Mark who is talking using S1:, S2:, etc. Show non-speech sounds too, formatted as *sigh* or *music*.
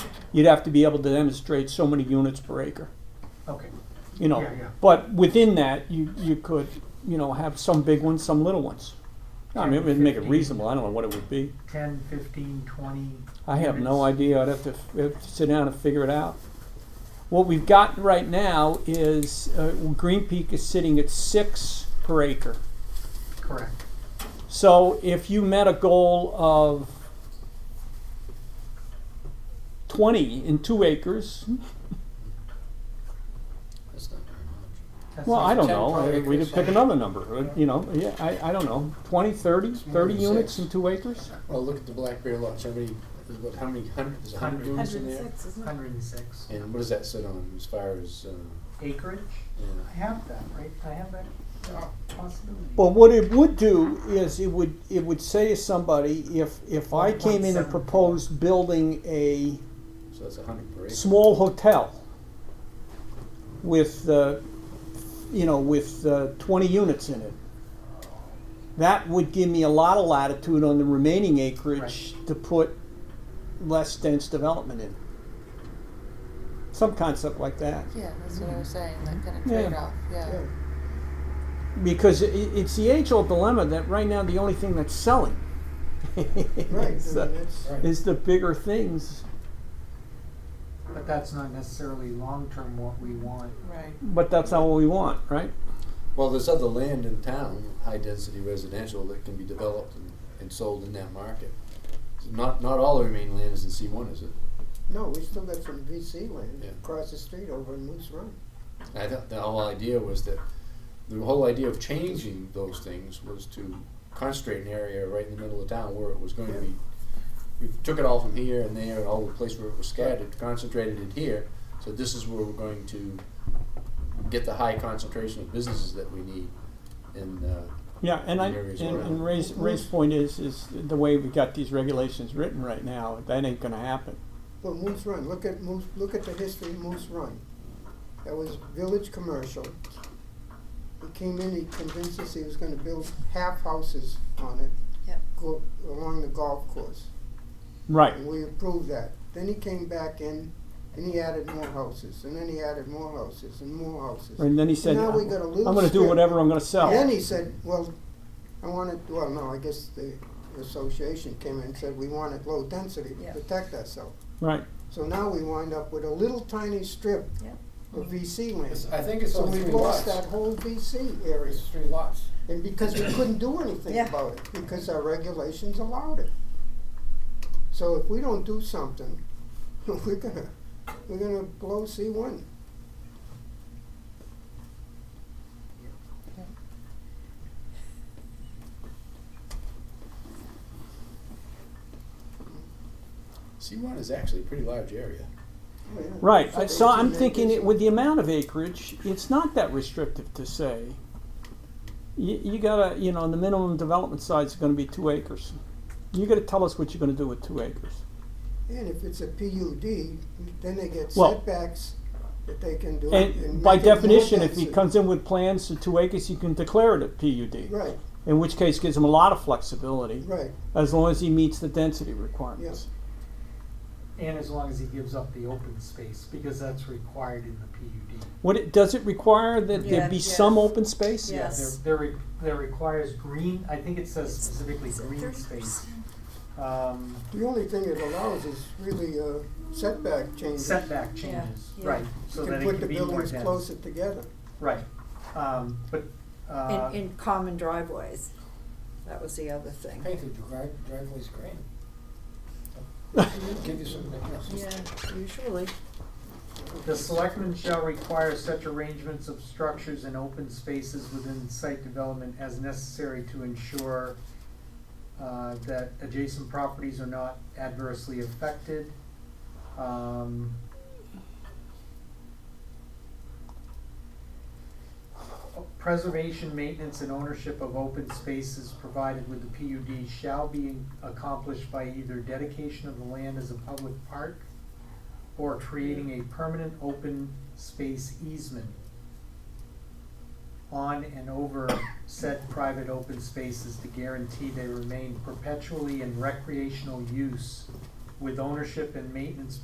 S1: you'd have to be able to demonstrate so many units per acre,
S2: Okay,
S1: you know.
S2: Yeah, yeah.
S1: But within that, you, you could, you know, have some big ones, some little ones. I mean, it'd make it
S2: 10, 15.
S1: reasonable, I don't know what it would be.
S2: ten, fifteen, twenty.
S1: I have no
S2: units.
S1: idea, I'd have to, f- have to sit down and figure it out. What we've got right now is, uh, Green Peak is sitting at six per acre.
S2: Correct.
S1: So if you met a goal of twenty in two acres,
S3: That's not very much.
S2: That's
S1: well, I
S2: like
S1: don't
S3: 10
S1: know,
S3: per
S1: I-
S3: acre
S1: we
S3: is
S1: could pick
S3: fine.
S1: another number, uh, you know, yeah, I, I don't know, twenty, thirty,
S3: more
S1: thirty
S3: than
S1: units
S3: six.
S1: in two acres?
S3: Well, Oh, look at the Black Bear Lodge, how many, there's what, how many hundred, there's a hundred
S2: Hundred.
S3: rooms in there?
S4: 106, isn't it?
S2: Hundred and six
S3: And what does that sit on as far as, uh,
S2: acreage.
S3: yeah,
S2: I have that, right? I have that uh, possibility.
S1: Well, what it would do is it would, it would say to somebody, if, if I came in and
S2: 1.74.
S1: proposed building a
S3: so that's a hundred per acre.
S1: small hotel with, uh, you know, with uh, 20 units in it. That would give me a lot of latitude on the remaining acreage to put less dense development in. Some concept like that.
S4: Yeah, that's what I was saying, that kind of
S1: Yeah.
S4: trade-off, Mm-hmm. yeah.
S1: Because i it's the age old dilemma that right now the only thing that's selling *laughs*
S2: Right,
S1: is, the, is the bigger things.
S2: But that's not necessarily long-term what we want.
S4: Right.
S1: But that's not what we want, right?
S3: Well, there's other land in town, high-density residential, that can be developed and, and sold in that market. Not, not all the remaining land is in C one, is it?
S5: No, we still got some VC land
S3: Yeah.
S5: across the street over in Moose Run.
S3: I thought the whole idea was that, the whole idea of changing those things was to concentrate an area right in the middle of town where it was going to be. We took it all from here and there and all the place where it was scattered, concentrated it here, so this is where we're going to get the high concentration of businesses that we need. And, uh,
S1: Yeah, and I,
S3: the areas
S1: and,
S3: around.
S1: and Ray's, Ray's point is, is the way we got these regulations written right now, that ain't gonna happen.
S5: Well, Moose Run, look at Moose, look at the history of Moose Run. That was village commercial. He came in, he convinced us he was gonna build half houses on it.
S4: Yep.
S5: Go, along the golf course,
S1: Right,
S5: and we approved that. Then he came back in, and he added more houses, and then he added more houses, and more houses.
S1: and then he said,
S5: Now
S1: I'm
S5: we got a loose
S1: gonna do
S5: strip.
S1: whatever I'm gonna
S5: Then
S1: sell.
S5: he said, well, I want it, well, no, I guess the association came in and said, we want it low density
S4: Yeah.
S5: to protect ourselves.
S1: Right,
S5: So now we wind up with a little tiny strip
S4: Yep.
S5: of VC land.
S3: I think
S5: So we lost that whole VC area,
S3: three lots.
S5: and because we couldn't do anything
S4: Yeah.
S5: about it, because our regulations allowed it. So if we don't do something, *laughs* we're gonna, we're gonna blow C one.
S3: C one is actually a pretty large area. Oh,
S1: right, I- so I'm thinking it, with the amount of acreage, it's not that restrictive to say. You, you gotta, you know, the minimum development size is gonna be two acres. You gotta tell us what you're gonna do with two acres.
S5: And if it's a PUD, then they get
S1: Well-
S5: setbacks that they can do.
S1: And by
S5: make it more
S1: definition, if he
S5: density.
S1: comes in with plans to two acres, you can declare it a PUD.
S5: Right,
S1: In which case gives him a lot of flexibility.
S5: right,
S1: As long as he meets the density requirements.
S2: And as long as he gives up the open space, because that's required in the PUD.
S1: What it, does it require that there
S4: Yeah,
S1: be
S4: yes.
S1: some open space?
S2: Yeah, there,
S4: Yes.
S2: there, re- there requires green, I think it says
S4: It's-
S2: specifically
S4: is it
S2: green
S4: 30%?
S2: space. Um,
S5: the only thing it allows is really uh, setback changes.
S2: setback changes,
S4: yeah.
S2: right, so
S5: You
S2: that
S5: can
S2: it
S5: put
S2: can
S5: the
S2: be more
S5: buildings
S2: dense,
S5: closer together.
S2: right, um, but, uh,
S4: And, and common driveways, that was the other thing.
S6: painted your drive, driveway's green. Give you something else.
S4: Yeah, usually.
S2: The selectmen shall require such arrangements of structures and open spaces within site development as necessary to ensure uh, that adjacent properties are not adversely affected. Um, Preservation, maintenance, and ownership of open spaces provided with the PUD shall be accomplished by either dedication of the land as a public park or creating a permanent open space easement on and over said private open spaces to guarantee they remain perpetually in recreational use with ownership and maintenance